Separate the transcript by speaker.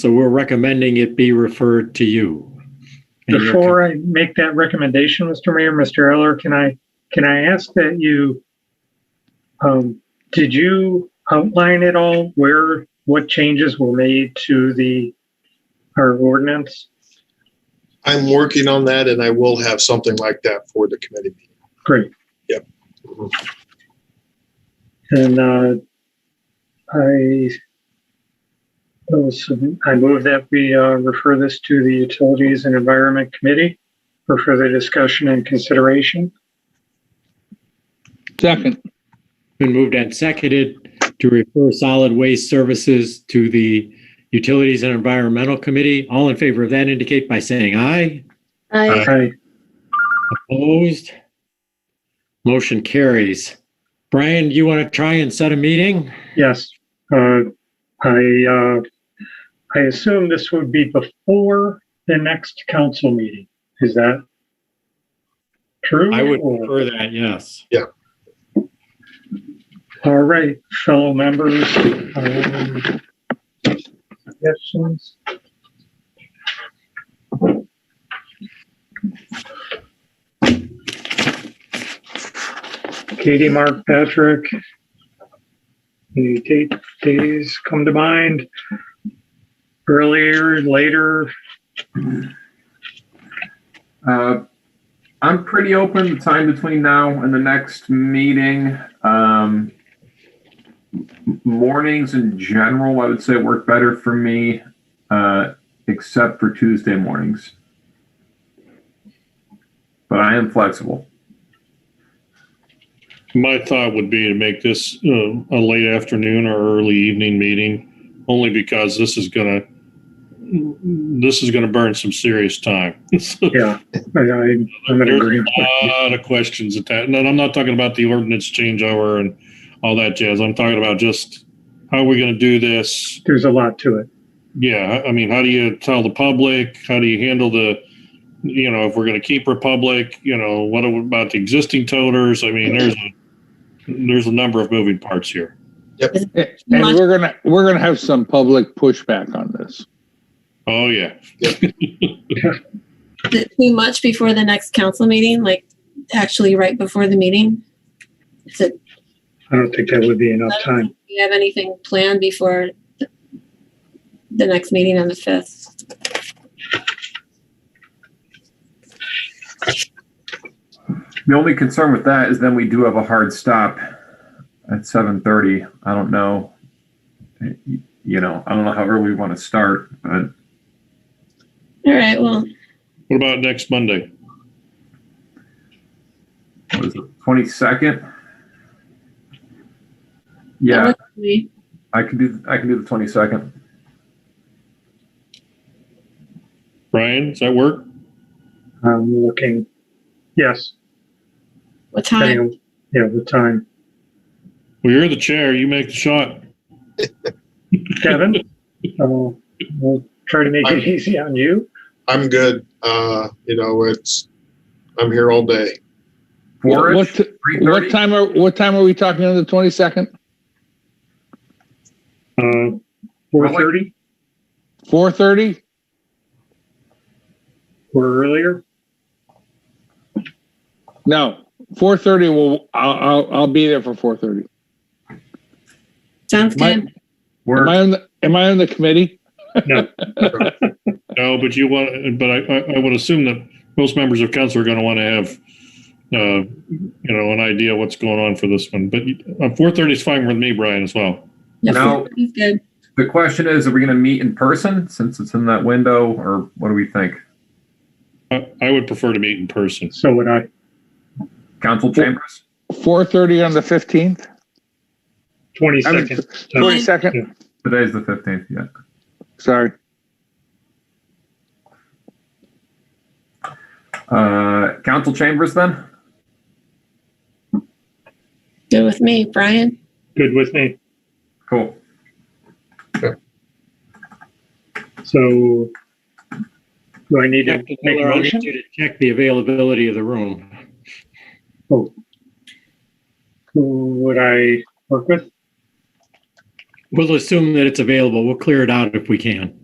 Speaker 1: So we're recommending it be referred to you. And you're-
Speaker 2: Before I make that recommendation, Mr. Mayor, Mr. Eller, can I, can I ask that you, um, did you outline at all where, what changes were made to the, our ordinance?
Speaker 3: I'm working on that and I will have something like that for the committee meeting.
Speaker 2: Great.
Speaker 3: Yep.
Speaker 2: And, uh, I, those- I move that we, uh, refer this to the Utilities and Environment Committee for further discussion and consideration.
Speaker 4: Second,
Speaker 1: Been moved and seconded to refer solid waste services to the Utilities and Environmental Committee. All in favor of that indicate by saying aye.
Speaker 5: Aye.
Speaker 2: Aye.
Speaker 1: Opposed? Motion carries. Brian, do you want to try and set a meeting?
Speaker 2: Yes, uh, I, uh, I assume this would be before the next council meeting. Is that true?
Speaker 1: I would
Speaker 2: Or-
Speaker 1: prefer that, yes.
Speaker 2: All right, fellow members. um, Suggestions? Katie, Mark, Patrick. Any date, days come to mind? Earlier, later?
Speaker 6: Uh, I'm pretty open the time between now and the next meeting. Um, m- mornings in general, I would say work better for me, uh, except for Tuesday mornings. But I am flexible.
Speaker 7: My thought would be to make this um, a late afternoon or early evening meeting, only because this is gonna, this is gonna burn some serious time. A
Speaker 2: Yeah, I, I- I'm in agreement.
Speaker 7: lot of questions at that, and I'm not talking about the ordinance changeover and all that jazz. I'm talking about just, how are we gonna do this?
Speaker 2: There's a lot to it.
Speaker 7: Yeah, I I mean, how do you tell the public? How do you handle the, you know, if we're going to keep Republic, you know, what about the existing toters? I mean, there's a, there's a number of moving parts here.
Speaker 4: and we're gonna, we're gonna have some public pushback on this.
Speaker 7: Oh yeah,
Speaker 5: Is it too much before the next council meeting, like actually right before the meeting? Is it,
Speaker 2: I don't think that would be enough
Speaker 5: I don't
Speaker 2: time.
Speaker 5: think we have anything planned before the- the next meeting on the 5th?
Speaker 6: The only concern with that is then we do have a hard stop at seven thirty. I don't know. You know, I don't know how early we want to start, but
Speaker 5: All right, well,
Speaker 7: what about next Monday?
Speaker 6: what is it, 22nd? Yeah,
Speaker 5: we-
Speaker 6: I can do, I can do the 22nd.
Speaker 7: Brian, does that work?
Speaker 2: I'm looking. Yes,
Speaker 5: what
Speaker 2: depending
Speaker 5: time?
Speaker 2: on, yeah, the time.
Speaker 7: Well, you're the chair. You make the shot.
Speaker 2: Kevin, uh, we'll try to make it easy on you.
Speaker 3: I'm good. Uh, you know, it's, I'm here all day.
Speaker 6: Four,
Speaker 4: What, t- what
Speaker 6: 3:30?
Speaker 4: time are, what time are we talking on the twenty-second?
Speaker 2: Uh, four thirty
Speaker 4: Four thirty?
Speaker 2: or earlier.
Speaker 4: No, four thirty, well, I'll, I'll, I'll be there for four thirty.
Speaker 5: Sounds
Speaker 4: My-
Speaker 5: good.
Speaker 4: Am I
Speaker 6: We're,
Speaker 4: on, the- am I on the committee?
Speaker 7: No, but you want, but I, I, I would assume that most members of council are going to want to have, uh, you know, an idea what's going on for this one. But uh, 4:30 is fine with me, Brian, as well.
Speaker 5: Yeah,
Speaker 6: No.
Speaker 5: 4:30 is Good.
Speaker 6: the question is, are we going to meet in person since it's in that window or what do we think?
Speaker 7: I, I would prefer to meet in person.
Speaker 2: So would I.
Speaker 6: Council chambers?
Speaker 4: Four thirty on the fifteenth?
Speaker 2: Twenty
Speaker 4: I mean,
Speaker 2: second.
Speaker 4: Twenty-second,
Speaker 6: Today's the 15th, yeah.
Speaker 4: sorry.
Speaker 6: Uh, council chambers then?
Speaker 5: Good with me, Brian.
Speaker 2: Good with me.
Speaker 6: Cool.
Speaker 2: So do I need to
Speaker 1: Dr.
Speaker 2: make a
Speaker 1: Miller, I'll
Speaker 2: motion?
Speaker 1: need you to Check the availability of the room.
Speaker 2: Who would I work with?
Speaker 1: We'll assume that it's available. We'll clear it out if we can.